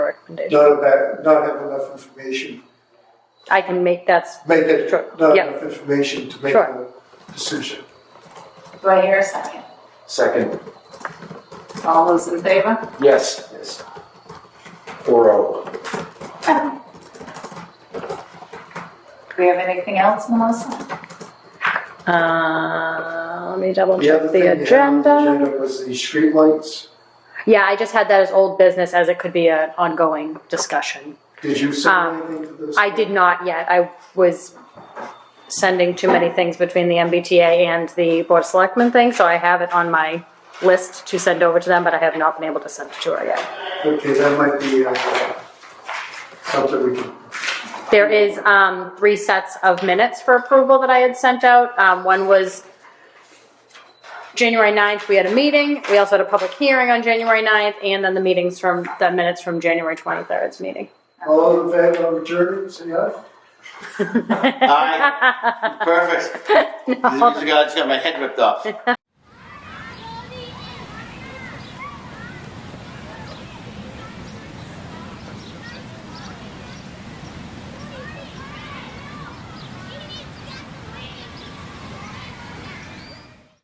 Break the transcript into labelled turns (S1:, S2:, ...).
S1: recommendation.
S2: Not about, not have enough information,
S1: I can make, that's,
S2: make it,
S1: Sure,
S2: not
S1: yeah.
S2: enough information to make
S1: Sure.
S2: the decision.
S3: Do I hear a second?
S4: Second,
S3: All those in favor?
S4: yes. Yes. Four oh.
S3: Do we have anything else, Melissa?
S1: uh, let me double
S2: The other
S1: check
S2: thing they
S1: the
S2: had on
S1: agenda.
S2: Agenda was the streetlights.
S1: Yeah, I just had that as old business as it could be an ongoing discussion.
S2: Did you say
S1: Um,
S2: anything to this?
S1: I did not yet. I was sending too many things between the MBTA and the Board of Selectmen thing, so I have it on my list to send over to them, but I have not been able to send it to her yet.
S2: Okay, that might be, uh, something we can,
S1: There is um, three sets of minutes for approval that I had sent out. Um, One was January 9th, we had a meeting. We also had a public hearing on January 9th, and then the meetings from, the minutes from January 23rd's meeting.
S2: all in favor of adjourned, say aye?
S5: Aye. Perfect.
S1: No.
S5: I just got I just got my head ripped off.